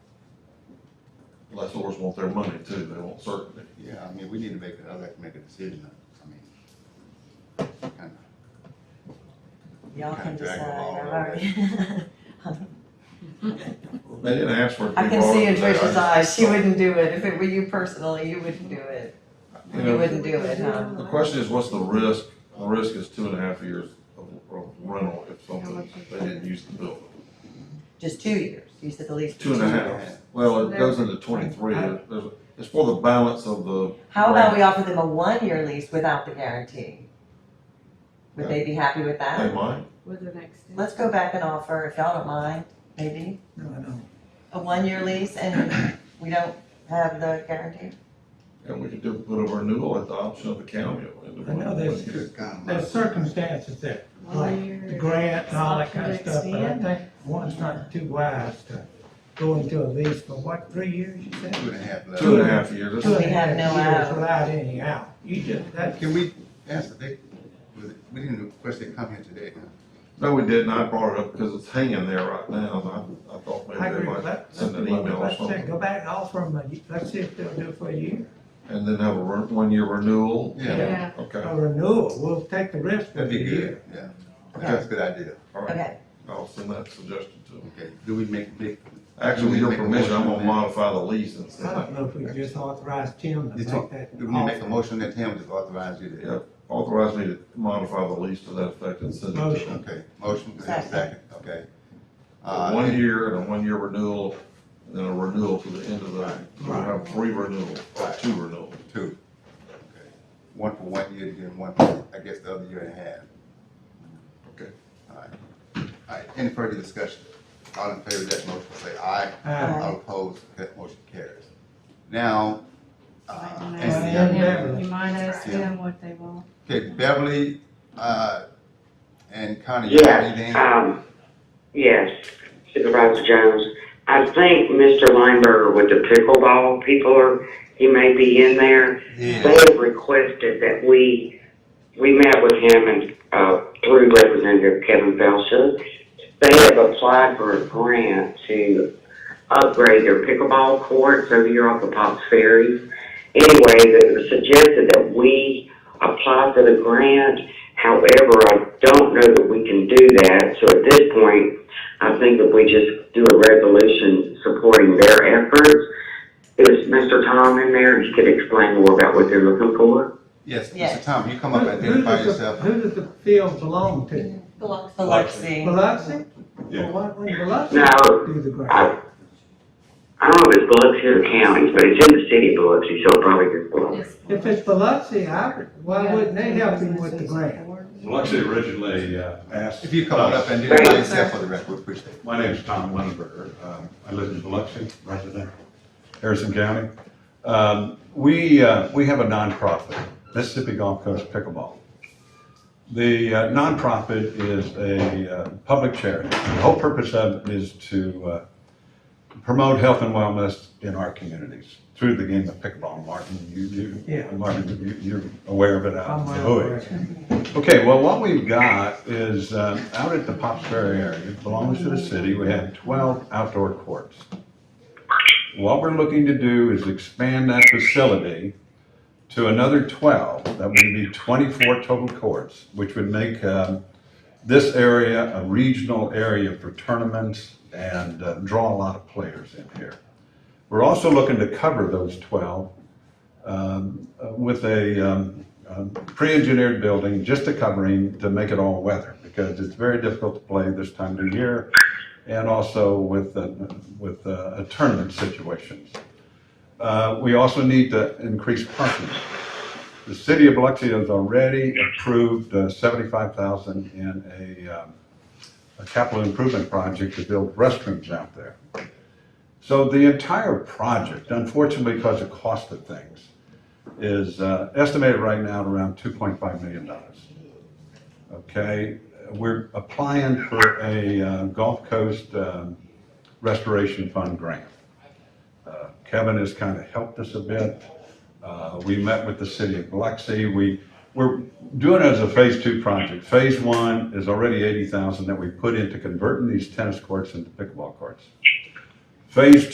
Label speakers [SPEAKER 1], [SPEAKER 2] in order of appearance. [SPEAKER 1] lessors want their money too, they want certainty.
[SPEAKER 2] Yeah, I mean, we need to make, I'd like to make a decision, I mean, kind of,
[SPEAKER 3] Y'all
[SPEAKER 2] Kinda
[SPEAKER 3] can
[SPEAKER 2] drag
[SPEAKER 3] decide,
[SPEAKER 2] the ball a
[SPEAKER 3] all
[SPEAKER 2] little
[SPEAKER 3] right.
[SPEAKER 1] They didn't ask for it. to
[SPEAKER 3] I
[SPEAKER 1] be
[SPEAKER 3] can
[SPEAKER 1] brought
[SPEAKER 3] see
[SPEAKER 1] up
[SPEAKER 3] in
[SPEAKER 1] today. I
[SPEAKER 3] Trish's
[SPEAKER 1] just-
[SPEAKER 3] eyes, she wouldn't do it, if it were you personally, you wouldn't do it,
[SPEAKER 1] You
[SPEAKER 3] you
[SPEAKER 1] know,
[SPEAKER 3] wouldn't do it, huh?
[SPEAKER 1] the question is, what's the risk? The risk is two and a half years of of rental if something, they didn't use the building.
[SPEAKER 3] Just two years, you said the lease.
[SPEAKER 1] Two and a half. Well, it goes into twenty-three. It- there's- It's for the balance of the,
[SPEAKER 3] How about we offer them a one-year lease without the guarantee? Would they be happy with
[SPEAKER 1] they
[SPEAKER 3] that?
[SPEAKER 1] might.
[SPEAKER 4] With an extension.
[SPEAKER 3] Let's go back and offer, if y'all don't mind, maybe, a one-year lease and we don't have the guarantee?
[SPEAKER 1] And we could do, put a renewal at the option of the county.
[SPEAKER 5] I know there's-
[SPEAKER 2] it's kind of.
[SPEAKER 5] There's circumstances there, like the grant and all that kind of stuff, but I think one's not too wise to go into a lease for what, three years, you said?
[SPEAKER 2] Two and a half left.
[SPEAKER 1] Two and a half years.
[SPEAKER 5] Two
[SPEAKER 1] It's-
[SPEAKER 5] and a
[SPEAKER 3] We have
[SPEAKER 5] half
[SPEAKER 3] no
[SPEAKER 5] years
[SPEAKER 3] out.
[SPEAKER 5] Without any out, you just, that's
[SPEAKER 2] Can we ask, if they, was it- we didn't request they come here today, huh?
[SPEAKER 1] No, we didn't. I brought it up because it's hanging there right now. and I, I thought
[SPEAKER 5] I
[SPEAKER 1] maybe they
[SPEAKER 5] agree
[SPEAKER 1] might
[SPEAKER 5] with that.
[SPEAKER 1] send an
[SPEAKER 5] That's what-
[SPEAKER 1] email or
[SPEAKER 5] let's say,
[SPEAKER 1] something.
[SPEAKER 5] Go back and offer them, a y- let's see if they'll do it for a year.
[SPEAKER 1] And then have a re- one-year renewal.
[SPEAKER 2] Yeah,
[SPEAKER 4] Yeah,
[SPEAKER 1] Okay,
[SPEAKER 5] A renewal, we'll take the risk for
[SPEAKER 2] that'd
[SPEAKER 5] a
[SPEAKER 2] be
[SPEAKER 5] year.
[SPEAKER 2] good, yeah. That's a good idea,
[SPEAKER 1] all right.
[SPEAKER 3] Okay,
[SPEAKER 1] I'll send that suggestion to them.
[SPEAKER 2] okay. Do we make, make,
[SPEAKER 1] Actually, with your
[SPEAKER 2] Make a
[SPEAKER 1] permission, I'm gonna
[SPEAKER 2] motion.
[SPEAKER 1] modify the lease and
[SPEAKER 5] I don't know if we just authorize Tim to
[SPEAKER 2] you
[SPEAKER 5] make
[SPEAKER 2] talk,
[SPEAKER 5] that.
[SPEAKER 2] do we make a
[SPEAKER 5] offer.
[SPEAKER 2] motion that Tim just authorize you to?
[SPEAKER 1] Yeah. authorize me to modify the lease to that effect and send it to them.
[SPEAKER 5] Motion.
[SPEAKER 2] Okay, motion, is there a second, okay.
[SPEAKER 1] A
[SPEAKER 2] Uh,
[SPEAKER 1] One
[SPEAKER 2] and-
[SPEAKER 1] year and a one-year renewal, and then a renewal to the end of the, we have three renewals, or two renewals.
[SPEAKER 2] Two. Okay. One for one year, then one for, I guess, the other year and a half.
[SPEAKER 1] Okay.
[SPEAKER 2] All right. All right, any further discussion? All in favor of that motion, say aye.
[SPEAKER 5] Uh,
[SPEAKER 3] Aye.
[SPEAKER 2] All opposed, that motion carries. Now, uh,
[SPEAKER 4] Right,
[SPEAKER 2] and
[SPEAKER 4] and
[SPEAKER 2] the
[SPEAKER 5] that's-
[SPEAKER 2] other-
[SPEAKER 4] yeah, you might ask
[SPEAKER 2] Yeah.
[SPEAKER 4] them what they want.
[SPEAKER 2] okay, Beverly, uh, and Connie. you have anything?
[SPEAKER 6] Yes, um, yes, Supervisor Jones. I think Mr. Lineberger with the pickleball people, are he may be in there. They
[SPEAKER 2] Yeah,
[SPEAKER 6] have requested that we, we met with him and, uh, through Representative Kevin Belcher. They have applied for a grant to upgrade their pickleball courts over here off the Pops Ferry. Anyway, it was suggested that we apply for the grant However, I don't know that we can do that, so at this point, I think that we just do a resolution supporting their efforts. Is Mr. Tom in there? He could explain more about what they're looking for.
[SPEAKER 2] yes, Mr.
[SPEAKER 3] Yes.
[SPEAKER 2] Tom, you come
[SPEAKER 5] Who
[SPEAKER 2] up and
[SPEAKER 5] who
[SPEAKER 2] identify
[SPEAKER 5] does the,
[SPEAKER 2] yourself.
[SPEAKER 5] who does the field belong to?
[SPEAKER 3] Biloxi.
[SPEAKER 5] Biloxi?
[SPEAKER 1] Yeah.
[SPEAKER 5] Well, Why would Biloxi
[SPEAKER 6] No,
[SPEAKER 5] do the grant?
[SPEAKER 6] I, I don't know if it's Biloxi or the county, but it's in the city of Biloxi, so it probably is Biloxi.
[SPEAKER 5] If it's Biloxi, I, would- why wouldn't they help him with the grant?
[SPEAKER 7] Well, like I said originally, uh, asked.
[SPEAKER 2] If you come on up and identify yourself for the record, we appreciate it.
[SPEAKER 7] My name is Tom Lundberg. Um, I live in Biloxi, resident, Harrison County. Um, We, uh, we have a nonprofit, Mississippi Gulf Coast Pickleball. The uh, nonprofit is a uh, public charity. The whole purpose of it is to uh, promote health and wellness in our communities through the game of pickleball. Martin, you, you,
[SPEAKER 5] Yeah.
[SPEAKER 7] Martin, you- you're aware of it out
[SPEAKER 5] I'm
[SPEAKER 7] in the
[SPEAKER 5] well
[SPEAKER 7] hood.
[SPEAKER 5] aware of it.
[SPEAKER 7] Okay, well, what we've got is, um, out at the Pops Ferry area, it belongs to the city, we have twelve outdoor courts. What we're looking to do is expand that facility to another twelve, that would be twenty-four total courts, which would make, um, this area a regional area for tournaments and uh, draw a lot of players in here. We're also looking to cover those twelve, um, uh, with a, um, um, pre-engineered building, just a covering to make it all weather, because it's very difficult to play this time of year, and also with, uh, with uh, a tournament situations. Uh, We also need to increase parking. The city of Biloxi has already approved uh, 75,000 in a, um, a capital improvement project to build restrooms out there. So the entire project, unfortunately, because of cost of things, is uh, estimated right now at around $2.5 million. Okay, we're applying for a uh, Gulf Coast um, Restoration Fund grant. Uh, Kevin has kind of helped us a bit. Uh, We met with the city of Biloxi. We, we're doing it as a phase two project. Phase one is already 80,000 that we put into converting these tennis courts into pickleball courts. Phase